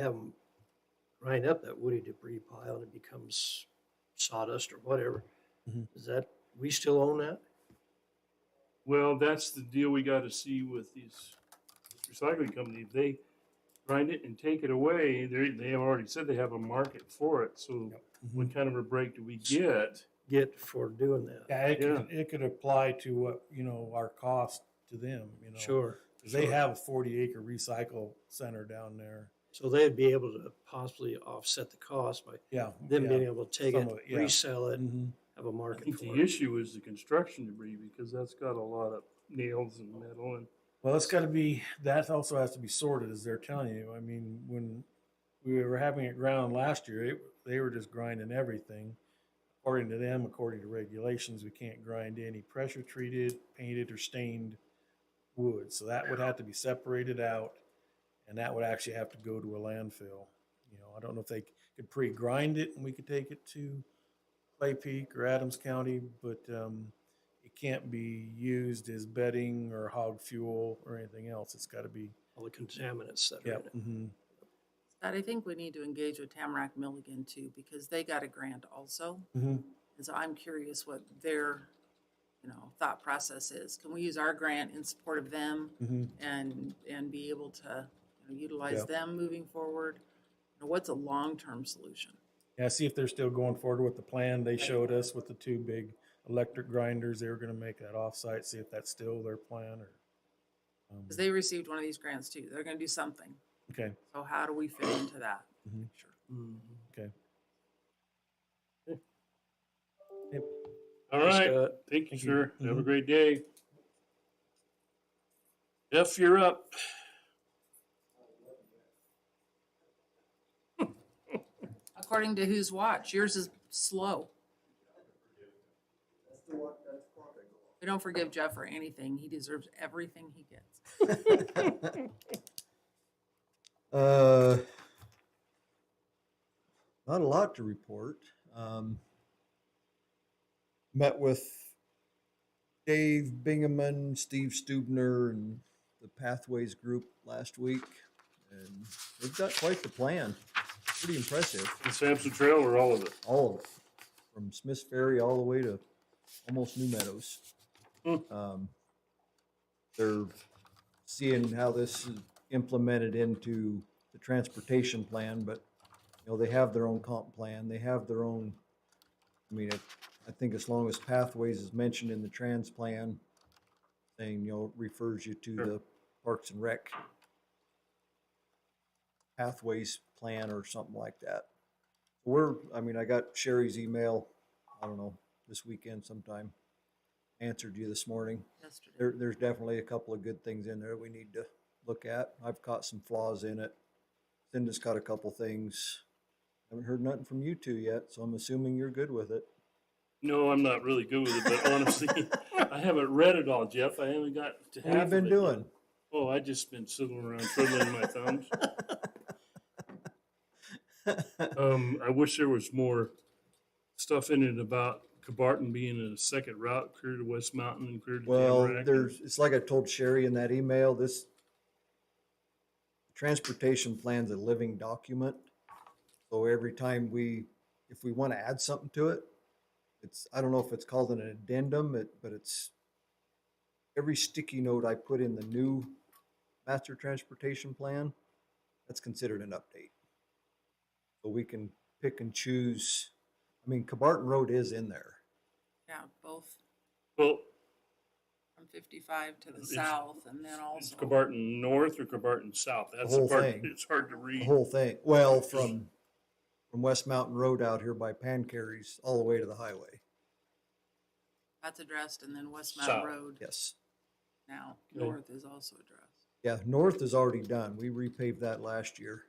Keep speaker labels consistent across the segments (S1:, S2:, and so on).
S1: have them grind up that woody debris pile and it becomes sawdust or whatever.
S2: Mhm.
S1: Is that, we still own that?
S3: Well, that's the deal we got to see with these this recycling company. If they grind it and take it away, they they have already said they have a market for it. So
S2: Mhm.
S3: what kind of a break do we get?
S1: Get for doing that?
S2: Yeah, it could, it could apply to what, you know, our cost to them, you know.
S1: Sure.
S2: 'Cause they
S1: sure.
S2: have a forty acre recycle center down there.
S1: So they'd be able to possibly offset the cost by
S2: Yeah.
S1: them
S2: Oh, yeah.
S1: being able to take
S2: Some
S1: it,
S2: of it, yeah.
S1: resell it, and
S2: Mhm.
S1: have a
S3: I
S1: market
S3: think
S1: for
S3: the
S1: it.
S3: issue is the construction debris because that's got a lot of nails and metal and
S2: Well, it's gotta be, that also has to be sorted, as they're telling you. I mean, when we were having it ground last year, it, they were just grinding everything. According to them, according to regulations, we can't grind any pressure treated, painted or stained wood. So that would have to be separated out and that would actually have to go to a landfill. You know, I don't know if they could pre-grind it and we could take it to Clay Peak or Adams County, but, um, it can't be used as bedding or hog fuel or anything else. It's gotta be,
S1: All the contaminants that are
S2: yeah.
S1: in it.
S2: mhm.
S4: Scott, I think we need to engage with Tamarack Milligan too, because they got a grant also.
S2: Mhm.
S4: And so I'm curious what their, you know, thought process is. Can we use our grant in support of them
S2: Mhm.
S4: and, and be able to you know, utilize
S2: Yeah.
S4: them moving forward? You know, What's a long-term solution?
S2: Yeah, see if they're still going forward with the plan they showed us with the two big electric grinders. They were gonna make that offsite, see if that's still their plan or. um,
S4: Because they received one of these grants too. They're going to do something.
S2: Okay,
S4: So how do we fit into that?
S2: Mhm.
S4: picture?
S1: Mhm.
S2: okay.
S3: All
S1: Thanks,
S3: right.
S1: Scott.
S3: Thank you,
S2: Thank you.
S3: sir. Have a
S2: Mhm.
S3: great day. Jeff, you're up.
S4: According to whose watch? Yours is slow. We don't forgive Jeff for anything. He deserves everything he gets.
S5: Uh, not a lot to report. Um, met with Dave Bingaman, Steve Stubner, and the Pathways group last week, and they've got quite the plan. Pretty impressive,
S3: The Sampson Trail or all of it?
S5: all of it, from Smith's Ferry all the way to almost New Meadows.
S3: Hmm.
S5: Um, they're seeing how this is implemented into the transportation plan, but, you know, they have their own comp plan, they have their own, I mean, I, I think as long as pathways is mentioned in the trans plan, thing, you know, refers you to
S3: Sure.
S5: the Parks and Rec pathways plan or something like that. We're, I mean, I got Sherry's email, I don't know, this weekend sometime, answered you this morning
S4: Yesterday.
S5: there, there's definitely a couple of good things in there we need to look at. I've caught some flaws in it. Cinda's caught a couple things. Haven't heard nothing from you two yet, so I'm assuming you're good with it.
S3: No, I'm not really good with it, but honestly, I haven't read it all, Jeff. I haven't got to
S5: What have
S3: half
S5: you been
S3: of it yet.
S5: doing?
S3: Oh, I just been sitting around twiddling my thumbs. Um, I wish there was more stuff in it about Cabarton being a second route clear to West Mountain and clear to
S5: Well,
S3: Tamarack.
S5: there's, it's like I told Sherry in that email, this transportation plan's a living document. So every time we, if we want to add something to it, it's, I don't know if it's called an addendum, it, but it's every sticky note I put in the new master transportation plan, that's considered an update. So we can pick and choose. I mean, Cabarton Road is in there.
S4: Yeah, both
S3: Well,
S4: from fifty-five to the
S3: It's-
S4: south and then
S3: is
S4: also.
S3: Cabarton North or Cabarton South? That's the
S5: whole
S3: part,
S5: thing.
S3: it's hard to
S5: the
S3: read.
S5: whole thing. Well, from from West Mountain Road out here by Pancaries all the way to the highway.
S4: That's addressed and then West Mountain
S3: South.
S4: Road
S5: Yes.
S4: now,
S3: Okay.
S4: north is also addressed.
S5: Yeah, north is already done. We repaved that last year.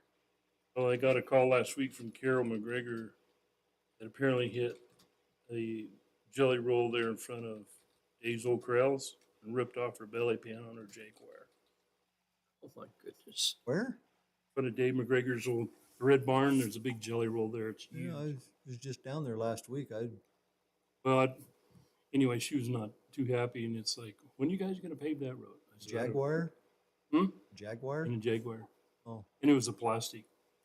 S3: Well, I got a call last week from Carol McGregor that apparently hit a jelly roll there in front of Dave's Old Corrals and ripped off her belly pan on her Jaguar.
S1: Oh, my goodness.
S5: Where?
S3: In front of Dave McGregor's old red barn, there's a big jelly roll there. It's
S5: Yeah,
S3: huge.
S5: I was just down there last week. I
S3: Well, I, anyway, she was not too happy, and it's like, when are you guys going to pave that road? I said, "I don't-"
S5: Jaguar.
S3: Hmm?
S5: Jaguar.
S3: And a Jaguar.
S5: Oh.
S3: And it was a plastic